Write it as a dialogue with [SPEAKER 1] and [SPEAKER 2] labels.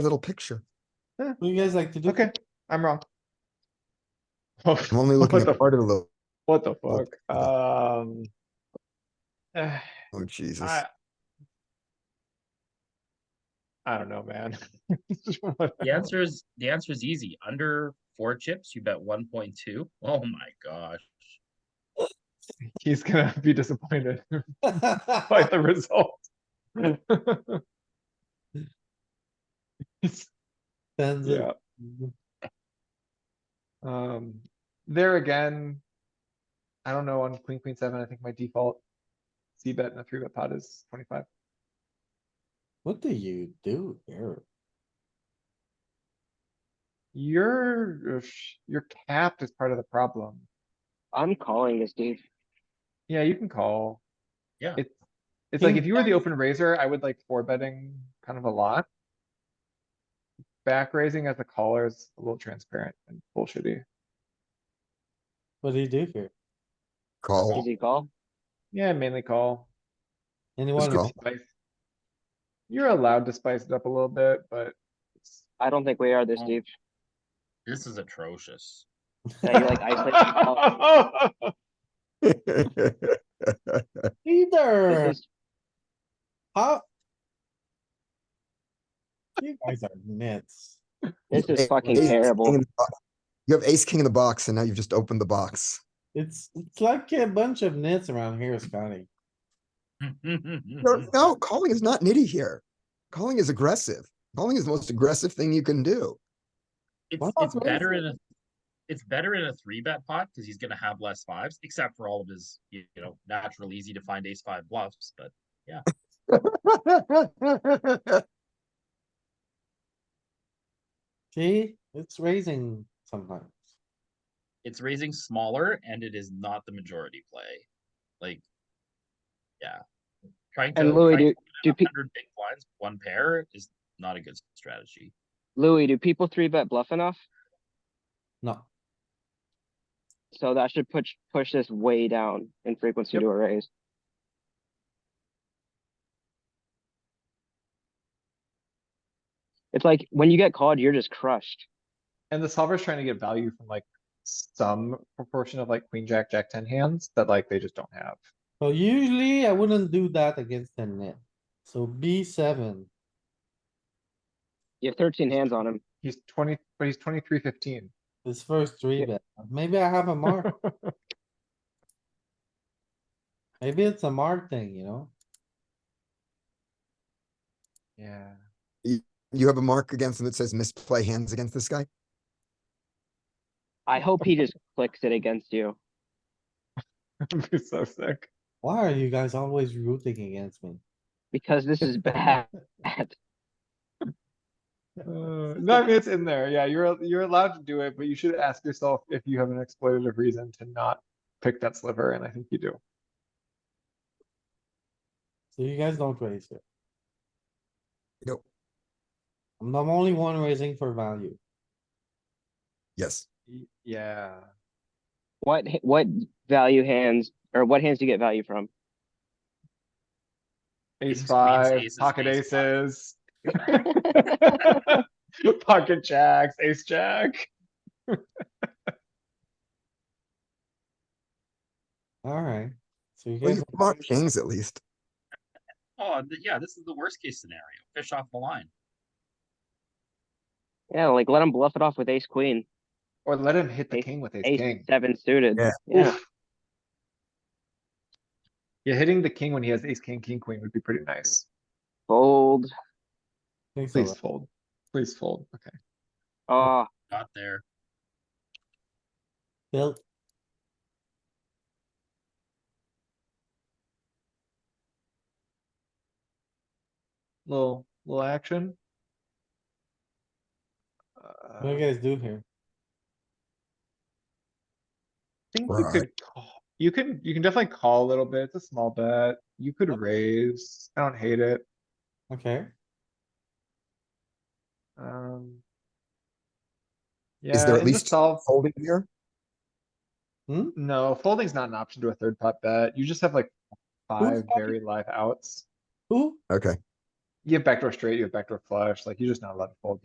[SPEAKER 1] little picture.
[SPEAKER 2] What do you guys like to do?
[SPEAKER 3] Okay, I'm wrong. Oh,
[SPEAKER 1] I'm only looking
[SPEAKER 3] What the
[SPEAKER 1] at part of the,
[SPEAKER 3] what the
[SPEAKER 1] What
[SPEAKER 3] fuck? Um. eh,
[SPEAKER 1] oh Jesus.
[SPEAKER 3] I. I don't know, man.
[SPEAKER 4] The answer is, the answer is easy. Under four chips, you bet one point two. Oh my gosh.
[SPEAKER 3] He's gonna be disappointed by the result. It's-
[SPEAKER 2] Depends on-
[SPEAKER 3] Yeah. Um, there again. I don't know on queen, queen seven, I think my default. C bet in a three bet pot is twenty-five.
[SPEAKER 2] What do you do here?
[SPEAKER 3] Your, uh, sh- your cap is part of the problem.
[SPEAKER 5] I'm calling this dude.
[SPEAKER 3] Yeah, you can call.
[SPEAKER 4] Yeah.
[SPEAKER 3] It's, it's like
[SPEAKER 2] King
[SPEAKER 3] if you were the open raiser, I would like four betting kind of a lot. Back raising as a caller is a little transparent and bullshitty.
[SPEAKER 2] What do you do here?
[SPEAKER 1] Call.
[SPEAKER 5] Easy call.
[SPEAKER 3] Yeah, mainly call.
[SPEAKER 2] Anyone?
[SPEAKER 1] call.
[SPEAKER 3] Spice- You're allowed to spice it up a little bit, but it's,
[SPEAKER 5] I don't think we are this
[SPEAKER 4] Oh.
[SPEAKER 5] deep.
[SPEAKER 4] This is atrocious.
[SPEAKER 5] Yeah, you're like isolating yourself.
[SPEAKER 2] Either,
[SPEAKER 5] This is,
[SPEAKER 2] how? You guys are nuts.
[SPEAKER 5] this
[SPEAKER 1] Ace-
[SPEAKER 5] is fucking
[SPEAKER 1] ace king in
[SPEAKER 5] terrible.
[SPEAKER 1] the bo- You have ace king in the box and now you've just opened the box.
[SPEAKER 2] It's, it's like a bunch of nits around here, Scotty.
[SPEAKER 3] Mm-hmm.
[SPEAKER 1] No, no, calling is not nitty here. Calling is aggressive. Calling is the most aggressive thing you can do.
[SPEAKER 4] It's,
[SPEAKER 2] What?
[SPEAKER 4] it's
[SPEAKER 2] What is
[SPEAKER 4] better in a, it's better in a three bet pot because he's gonna have less fives, except for all of his, you know, natural easy to find ace five bluffs, but
[SPEAKER 2] See, it's raising sometimes.
[SPEAKER 4] it's raising smaller and it is not the majority play. Like, yeah. Trying to.
[SPEAKER 5] And Louis,
[SPEAKER 4] trying
[SPEAKER 5] do,
[SPEAKER 4] to
[SPEAKER 5] do, pe-
[SPEAKER 4] Hundred big blinds, one pair is not a good strategy.
[SPEAKER 5] Louis, do people three bet bluff enough?
[SPEAKER 2] No,
[SPEAKER 5] So that should push, push this way down in frequency
[SPEAKER 3] Yep.
[SPEAKER 5] to a raise. It's like when you get called, you're just crushed.
[SPEAKER 3] And the solver's trying to get value from like some proportion of like queen, jack, jack ten hands that like they just don't have.
[SPEAKER 2] so usually I wouldn't do that against a net. So B seven,
[SPEAKER 5] You have thirteen hands on him.
[SPEAKER 3] He's twenty, but he's twenty-three fifteen.
[SPEAKER 2] this first three
[SPEAKER 5] Yeah.
[SPEAKER 2] bet, maybe I have a mark. Maybe it's a mark thing, you know?
[SPEAKER 3] Yeah.
[SPEAKER 1] You have a mark against him that says misplay hands against this guy?
[SPEAKER 5] I hope he just clicks it against you.
[SPEAKER 3] That'd be so sick.
[SPEAKER 2] Why are you guys always rooting against me?
[SPEAKER 5] Because this is bad.
[SPEAKER 3] Uh, no, I mean, it's in there. Yeah, you're, al- you're allowed to do it, but you should ask yourself if you have an exploitative reason to not pick that sliver, and I think you do.
[SPEAKER 2] So you guys don't raise here.
[SPEAKER 1] Nope.
[SPEAKER 2] I'm the only one raising for value.
[SPEAKER 1] Yes.
[SPEAKER 3] Y- Yeah.
[SPEAKER 5] What, h- what value hands, or what hands do you get value from?
[SPEAKER 3] Ace
[SPEAKER 4] Kings, queens,
[SPEAKER 3] five,
[SPEAKER 4] aces,
[SPEAKER 3] pocket
[SPEAKER 4] ace
[SPEAKER 3] aces. Pocket jacks, ace jack.
[SPEAKER 2] Alright, so you
[SPEAKER 1] Well,
[SPEAKER 2] guys,
[SPEAKER 1] you mark kings at least.
[SPEAKER 4] Oh, th- yeah, this is the worst case scenario. Fish off the line.
[SPEAKER 5] Yeah, like let him bluff it off with ace queen,
[SPEAKER 3] Or let him hit the
[SPEAKER 5] Ace-
[SPEAKER 3] king with ace
[SPEAKER 5] ace
[SPEAKER 3] king.
[SPEAKER 5] seven suited.
[SPEAKER 1] Yeah.
[SPEAKER 5] Yeah,
[SPEAKER 3] Oof. Yeah, hitting the king when he has ace, king, king, queen would be pretty nice.
[SPEAKER 5] fold.
[SPEAKER 2] think so,
[SPEAKER 3] Please
[SPEAKER 2] right?
[SPEAKER 3] fold. Please fold. Okay.
[SPEAKER 5] Oh,
[SPEAKER 4] Not there.
[SPEAKER 2] Bill,
[SPEAKER 3] Little, little action.
[SPEAKER 2] what do you
[SPEAKER 3] Uh,
[SPEAKER 2] guys do here?
[SPEAKER 3] think you
[SPEAKER 1] Right.
[SPEAKER 3] could, call- you can, you can definitely call a little bit. It's a small bet. You could raise. I don't hate it.
[SPEAKER 2] Okay,
[SPEAKER 3] Um.
[SPEAKER 1] Is
[SPEAKER 3] Yeah,
[SPEAKER 1] there at
[SPEAKER 3] in the
[SPEAKER 1] least
[SPEAKER 3] solve,
[SPEAKER 1] folding here?
[SPEAKER 3] no, folding's not an option to a third pot bet. You just have like five
[SPEAKER 2] fucking-
[SPEAKER 3] very live outs.
[SPEAKER 2] who?
[SPEAKER 1] Okay.
[SPEAKER 3] You have backdoor straight, you have backdoor flush, like you're just not allowed to fold.